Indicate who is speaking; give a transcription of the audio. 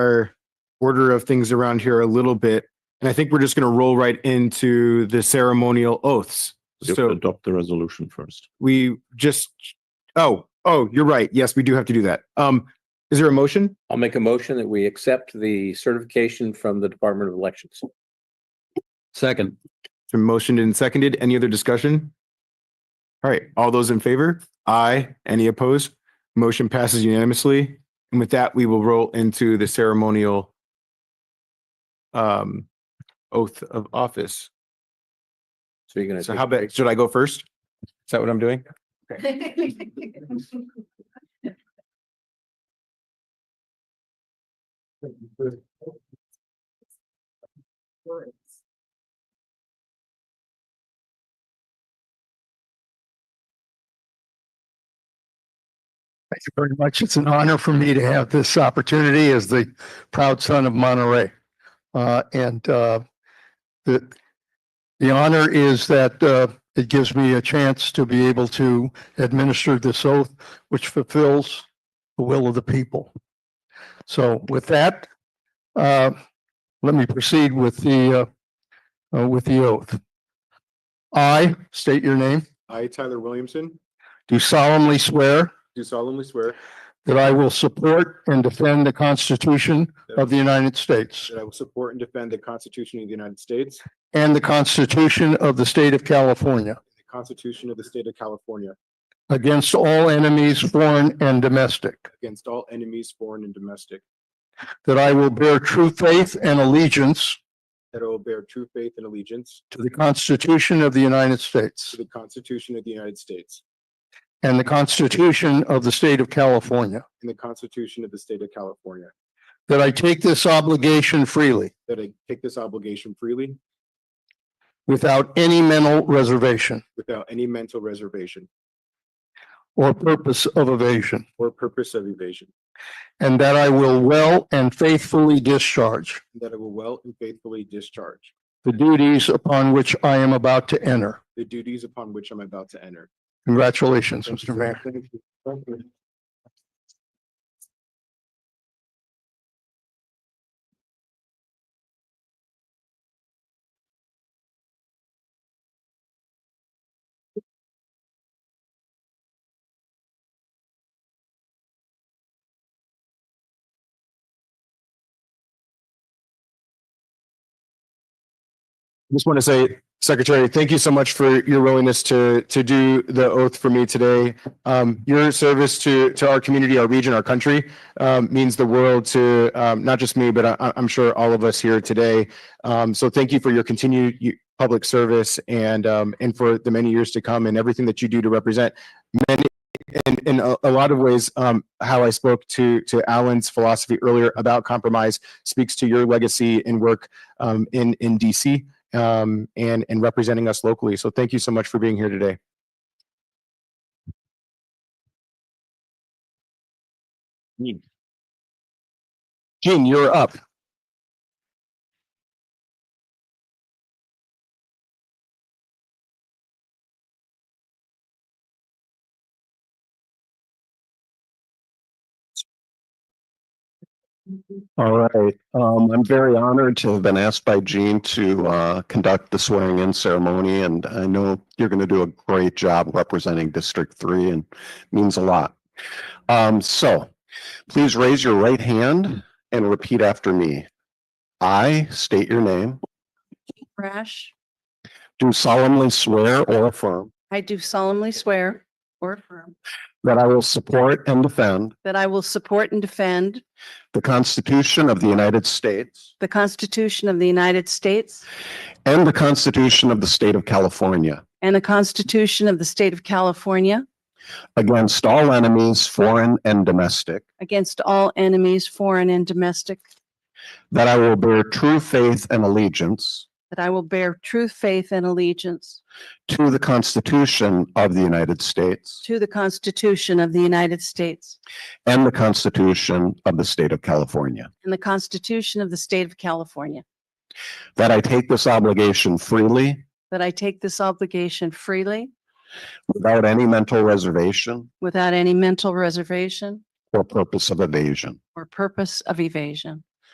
Speaker 1: our order of things around here a little bit. And I think we're just going to roll right into the ceremonial oaths.
Speaker 2: You
Speaker 1: So
Speaker 2: adopt the resolution first.
Speaker 1: we just, oh, oh, you're right. Yes, we do have to do that. Um, is there a motion?
Speaker 3: I'll make a motion that we accept the certification from the Department of Elections.
Speaker 4: Second.
Speaker 1: It's been motioned and seconded. Any other discussion? All right, all those in favor? Aye. Any opposed? Motion passes unanimously. And with that, we will roll into the ceremonial um, oath of office.
Speaker 3: So you're gonna.
Speaker 1: So
Speaker 3: take-
Speaker 1: how about, should I go first? Is that what I'm doing?
Speaker 5: Thank you very much. It's an honor for me to have this opportunity as the proud son of Monterey. Uh, and, uh, the, the honor is that, uh, it gives me a chance to be able to administer this oath, which fulfills the will of the people. So with that, uh, let me proceed with the, uh, uh, with the oath. I state your name,
Speaker 1: I, Tyler Williamson,
Speaker 5: do solemnly swear
Speaker 1: do solemnly swear
Speaker 5: That I will support and defend the Constitution of the United States
Speaker 1: that I will support and defend the Constitution of the United States and
Speaker 5: and the Constitution of the State of California
Speaker 1: the Constitution of the State of California
Speaker 5: against all enemies, foreign and domestic.
Speaker 1: against all enemies, foreign and domestic,
Speaker 5: That I will bear true faith and allegiance
Speaker 1: that I will bear true faith and allegiance
Speaker 5: to the Constitution of the United
Speaker 1: to
Speaker 5: States
Speaker 1: the Constitution of the United States
Speaker 5: and the Constitution of the State of California.
Speaker 1: and the Constitution of the State of California,
Speaker 5: That I take this obligation freely
Speaker 1: that I take this obligation freely
Speaker 5: without any mental reservation
Speaker 1: without any mental reservation
Speaker 5: or purpose of evasion.
Speaker 1: or purpose of evasion,
Speaker 5: And that I will well and faithfully discharge
Speaker 1: and that I will well and faithfully discharge
Speaker 5: the duties upon which I am about to enter.
Speaker 1: the duties upon which I'm about to enter.
Speaker 5: Congratulations,
Speaker 1: Thank you,
Speaker 5: Mr. Mayor.
Speaker 1: sir. Thank you. Thank you. Just want to say, Secretary, thank you so much for your willingness to, to do the oath for me today. Um, your service to, to our community, our region, our country, um, means the world to, um, not just me, but I, I'm sure all of us here today. Um, so thank you for your continued you- public service and, um, and for the many years to come and everything that you do to represent many, and in a, a lot of ways, um, how I spoke to, to Alan's philosophy earlier about compromise speaks to your legacy and work, um, in, in DC um, and and representing us locally. So thank you so much for being here today. Gene, you're up.
Speaker 6: All right, um, I'm very honored to have been asked by Gene to, uh, conduct the swearing in ceremony and I know you're going to do a great job representing District Three and it means a lot. Um, so please raise your right hand and repeat after me. I state your name,
Speaker 7: Rash,
Speaker 6: do solemnly swear or affirm
Speaker 7: I do solemnly swear or affirm
Speaker 6: that I will support and defend
Speaker 7: that I will support and defend
Speaker 6: the Constitution of the United States
Speaker 7: the Constitution of the United States
Speaker 6: and the Constitution of the State of California
Speaker 7: and the Constitution of the State of California
Speaker 6: against all enemies, foreign and domestic.
Speaker 7: against all enemies, foreign and domestic,
Speaker 6: That I will bear true faith and allegiance
Speaker 7: that I will bear true faith and allegiance
Speaker 6: to the Constitution of the United States
Speaker 7: to the Constitution of the United States
Speaker 6: and the Constitution of the State of California.
Speaker 7: and the Constitution of the State of California,
Speaker 6: That I take this obligation freely,
Speaker 7: that I take this obligation freely
Speaker 6: without any mental reservation
Speaker 7: without any mental reservation
Speaker 6: or purpose of evasion.
Speaker 7: or purpose of evasion,